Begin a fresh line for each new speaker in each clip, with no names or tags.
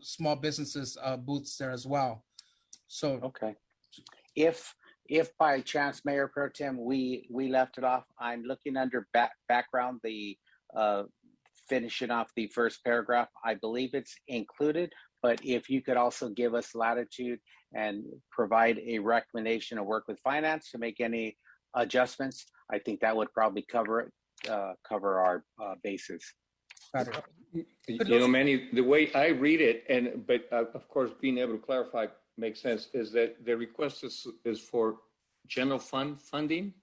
small businesses uh, booths there as well. So
Okay. If, if by chance, Mayor Pro Tem, we, we left it off, I'm looking under back, background, the, uh, finishing off the first paragraph, I believe it's included, but if you could also give us latitude and provide a recommendation or work with finance to make any adjustments, I think that would probably cover it, uh, cover our, uh, bases.
got it.
You
But
know,
those-
Manny, the way I read it, and, but uh, of course, being able to clarify makes sense, is that the request is, is for general fund funding.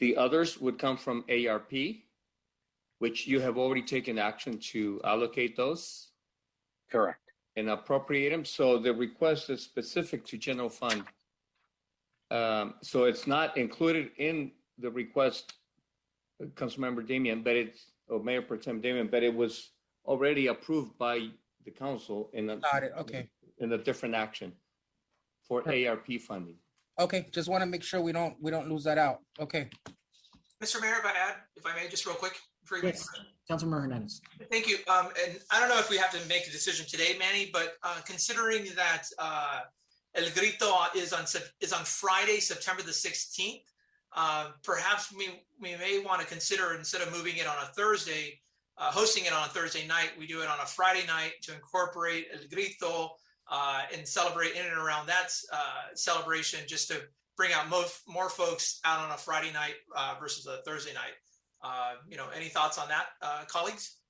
The others would come from ARP, which you have already taken action to allocate those
Correct.
and appropriate them. So the request is specific to general fund. Um, So it's not included in the request, uh, Councilmember Damian, but it's, or Mayor Pro Tem Damian, but it was already approved by the council in a.
Got it. Okay.
In a different action for ARP funding.
Okay, just want to make sure we don't, we don't lose that out. Okay,
Mr. Mayor, if I add, if I may, just real quick. before you make-
Yes. Councilmember Hernandez.
Thank you. Um, and I don't know if we have to make a decision today, Manny, but, uh, considering that, uh, El Grito is on, Sep- is on Friday, September the sixteenth, uh, perhaps we, we may want to consider, instead of moving it on a Thursday, uh, hosting it on a Thursday night, we do it on a Friday night to incorporate El Grito, uh, and celebrate in and around that, uh, celebration, just to bring out most, more folks out on a Friday night, uh, versus a Thursday night. Uh, you know, any thoughts on that, uh, colleagues?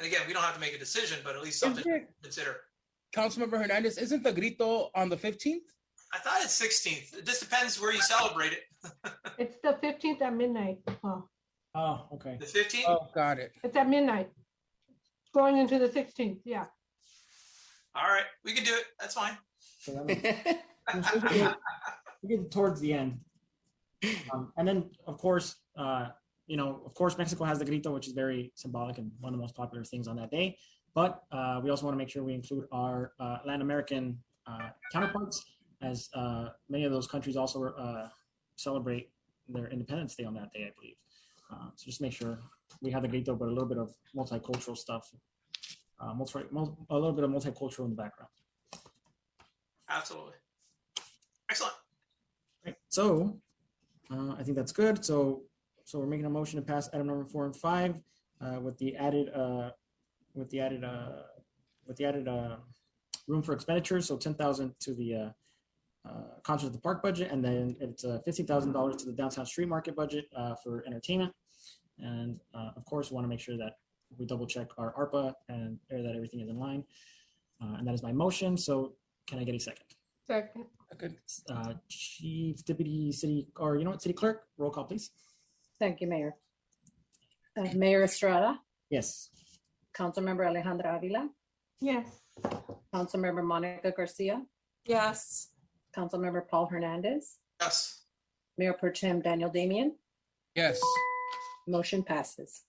And again, we don't have to make a decision, but at least something to consider.
Councilmember Hernandez, isn't the grito on the fifteenth?
I thought it's sixteenth. It just depends where you celebrate it.
It's the fifteenth at midnight. Well,
Oh, okay.
The fifteenth?
Oh, got it.
it's at midnight. Going into the sixteenth, yeah.
All right, we can do it. That's fine.
So that makes- we get- we get towards the end. Um, and then, of course, uh, you know, of course, Mexico has the grito, which is very symbolic and one of the most popular things on that day. But uh, we also want to make sure we include our uh, Latin American uh, counterparts, as uh, many of those countries also uh, celebrate their Independence Day on that day, I believe. Uh, so just make sure we have the grito, but a little bit of multicultural stuff, uh, multi, mul- a little bit of multicultural in the background.
Absolutely. Excellent.
Right, so, uh, I think that's good. So, so we're making a motion to pass item number four and five, uh, with the added, uh, with the added, uh, with the added, uh, room for expenditures. So ten thousand to the, uh, uh, concert at the park budget, and then it's, uh, fifteen thousand dollars to the downtown street market budget, uh, for entertainment. And, uh, of course, want to make sure that we double check our ARPA and uh, that everything is in line. Uh, and that is my motion. So can I get a second?
Second,
Okay.
uh, Chief Deputy City, or you know what, City Clerk, roll call, please.
Thank you, Mayor. Uh, Mayor Estrada,
Yes.
Councilmember Alejandra Avila,
yes.
Councilmember Monica Garcia,
Yes.
Councilmember Paul Hernandez,
Yes.
Mayor Pro Tem Daniel Damian,
Yes,
motion passes.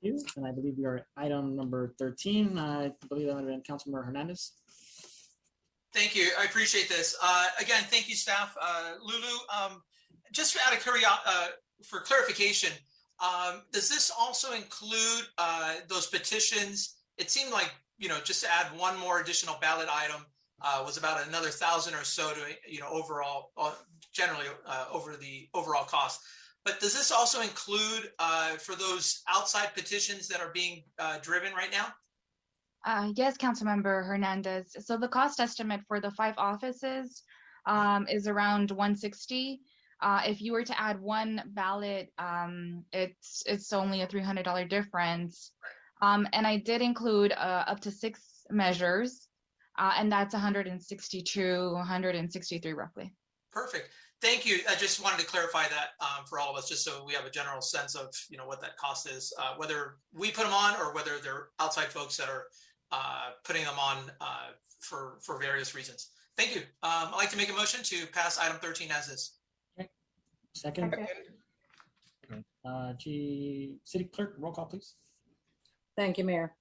You, and I believe we are at item number 13. I believe that would have been Councilmember Hernandez.
Thank you. I appreciate this. Uh, again, thank you, staff. Uh, Lulu, um, just out of curiosity, uh, for clarification, um, does this also include, uh, those petitions? It seemed like, you know, just to add one more additional ballot item, uh, was about another thousand or so to, you know, overall, uh, generally, uh, over the overall cost. But does this also include, uh, for those outside petitions that are being, uh, driven right now?
Uh, yes, Councilmember Hernandez. So the cost estimate for the five offices um, is around 160. Uh, if you were to add one ballot, um, it's it's only a $300 difference. Um, and I did include uh, up to six measures, uh, and that's 162, 163 roughly.
Perfect. Thank you. I just wanted to clarify that um, for all of us, just so we have a general sense of, you know, what that cost is, uh, whether we put them on or whether they're outside folks that are uh, putting them on uh, for, for various reasons. Thank you. Um, I'd like to make a motion to pass item 13 as is.
Second,
Second.
uh, G, City Clerk, roll call, please.
Thank you, Mayor.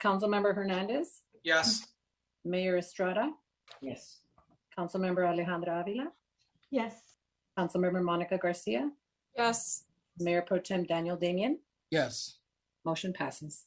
Councilmember Hernandez,
Yes.
Mayor Estrada,
Yes.
Councilmember Alejandra Avila,
Yes,
Councilmember Monica Garcia,
Yes.
Mayor Pro Tem Daniel Damian,
yes.
motion passes.